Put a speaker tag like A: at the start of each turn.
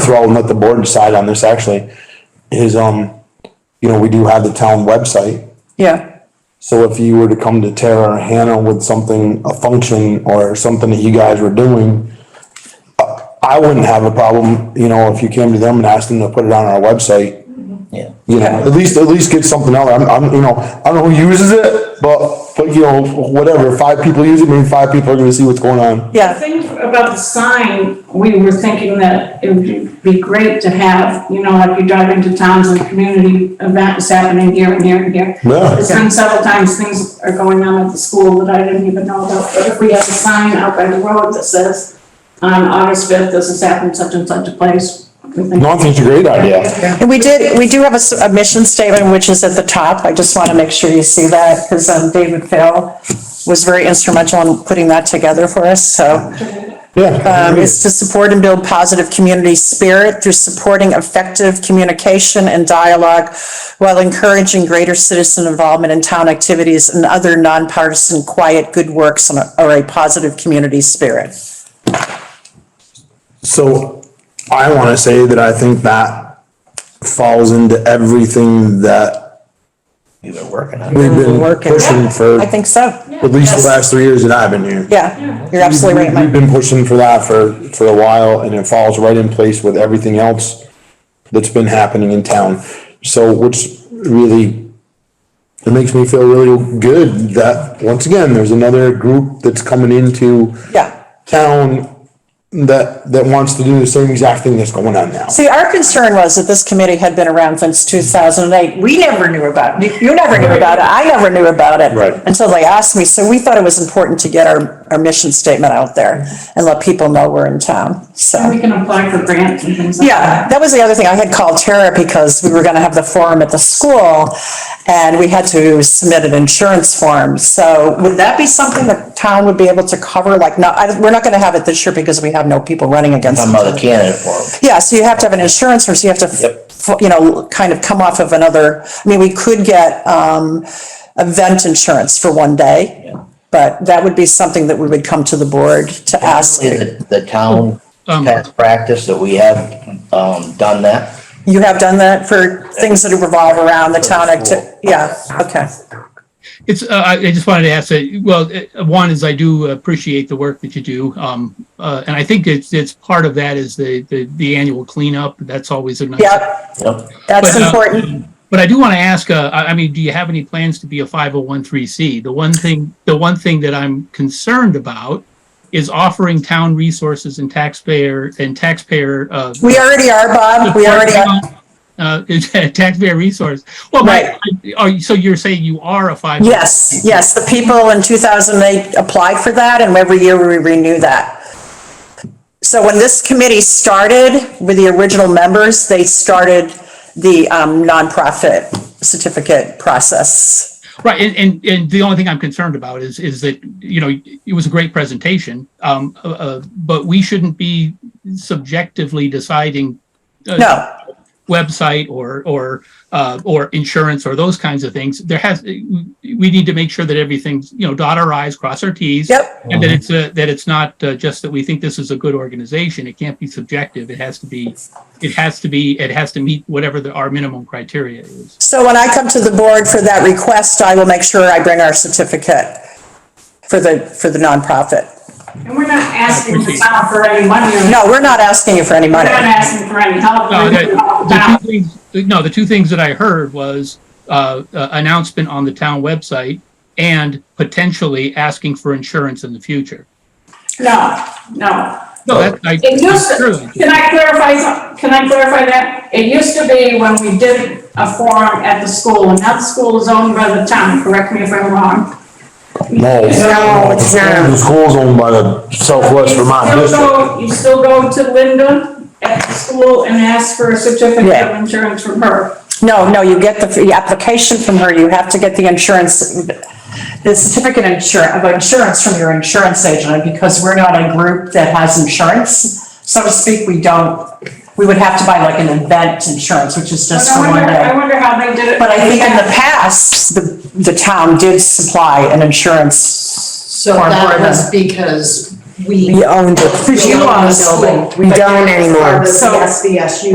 A: throw and let the board decide on this actually, is, um, you know, we do have the town website.
B: Yeah,
A: So if you were to come to Tara or Hannah with something, a function or something that you guys were doing, uh, I wouldn't have a problem, you know, if you came to them and asked them to put it on our website.
C: Yeah.
A: You know, at least, at least get something out. I'm, I'm, you know, I don't know who uses it, but, but you know, whatever, five people use it, maybe five people are gonna see what's going on.
B: yeah.
D: The thing about the sign, we were thinking that it would be great to have, you know, like you drive into towns and community event is happening here and here and here.
A: Yeah.
D: There's been several times things are going on at the school that I didn't even know about, but if we have a sign out by the road that says, on August fifth, this has happened such and such a place. we think-
A: No, I think it's a great idea.
B: And we did, we do have a, s- a mission statement, which is at the top. I just want to make sure you see that because David Phil was very instrumental in putting that together for us, so.
A: Yeah.
B: Um, is to support and build positive community spirit through supporting effective communication and dialogue while encouraging greater citizen involvement in town activities and other nonpartisan, quiet, good works and a- or a positive community spirit.
A: So I want to say that I think that falls into everything that
C: You've been working on it.
A: we've been
B: Working.
A: pushing for
B: I think so.
A: at least the last three years that I've been here.
B: Yeah, you're absolutely right,
A: We-
B: Mike.
A: We've been pushing for that for, for a while and it falls right in place with everything else that's been happening in town. So which really, it makes me feel really good that, once again, there's another group that's coming into
B: Yeah.
A: town that, that wants to do the same exact thing that's going on now.
B: See, our concern was that this committee had been around since two thousand and eight. We never knew about it. You- You never knew about it. I never knew about it.
A: Right.
B: Until they asked me. So we thought it was important to get our, our mission statement out there and let people know we're in town,
D: And
B: so.
D: we can apply for grants and things like
B: Yeah,
D: that.
B: that was the other thing. I had called Tara because we were gonna have the forum at the school and we had to submit an insurance form. So would that be something the town would be able to cover? Like, no, I, we're not gonna have it this year because we have no people running against.
C: Some other candidate for him.
B: Yeah, so you have to have an insurance, or so you have to,
C: Yep.
B: f- you know, kind of come off of another, I mean, we could get, um, event insurance for one day. But that would be something that we would come to the board to ask.
C: Is it the town past practice that we have, um, done that?
B: You have done that for things that revolve around the town acti, yeah, okay.
E: It's, uh, I, I just wanted to ask that, well, uh, one is I do appreciate the work that you do. Um, uh, and I think it's, it's part of that is the, the, the annual cleanup. That's always a nice.
B: Yep,
C: Yep.
B: that's
E: But, uh,
B: important.
E: But I do want to ask, uh, I, I mean, do you have any plans to be a 501c? The one thing, the one thing that I'm concerned about is offering town resources and taxpayer and taxpayer, uh,
B: We already are, Bob, we already are,
E: uh, taxpayer resource. Well,
B: Right.
E: right. Are you, so you're saying you are a 501c?
B: yes, yes, the people in two thousand eight applied for that, and every year we renew that. So when this committee started with the original members, they started the um, nonprofit certificate process.
E: Right, and, and, and the only thing I'm concerned about is, is that, you know, it was a great presentation, um, uh, uh, but we shouldn't be subjectively deciding uh,
B: No,
E: website or, or, uh, or insurance or those kinds of things. There has, we need to make sure that everything's, you know, dot our i's, cross our t's.
B: Yep.
E: And that it's, uh, that it's not uh, just that we think this is a good organization. It can't be subjective. It has to be, it has to be, it has to meet whatever the, our minimum criteria is.
B: so when I come to the board for that request, I will make sure I bring our certificate for the, for the nonprofit.
D: And we're not asking the town for any money or.
B: No, we're not asking you for any
D: We're
B: money.
D: not asking for any help.
E: No, the, the two things, no, the two things that I heard was, uh, uh, announcement on the town website and potentially asking for insurance in the future.
D: No, no.
E: No, that, I.
D: It used
E: Surely.
D: to, can I clarify, some- can I clarify that? It used to be when we did a forum at the school, and now the school is owned by the town, correct me if I'm wrong.
A: No.
B: No, it's not.
A: The school's owned by the Southwest Vermont
D: You still
A: District.
D: go- You still go to Linda at the school and ask for a certificate of
B: Yeah.
D: insurance from her.
B: No, no, you get the, the application from her, you have to get the insurance, the certificate insur- of insurance from your insurance agent, and because we're not a group that has insurance, so to speak, we don't, we would have to buy like an event insurance, which is
D: But
B: just
D: I
B: for one
D: wonder, I
B: day.
D: wonder how they did it.
B: But I think in the past, the, the town did supply an insurance.
F: So
B: Or
F: that
B: more
F: was because We owned it.
B: Because you own the
F: We
B: building.
F: don't anymore.
B: So-
G: SBSU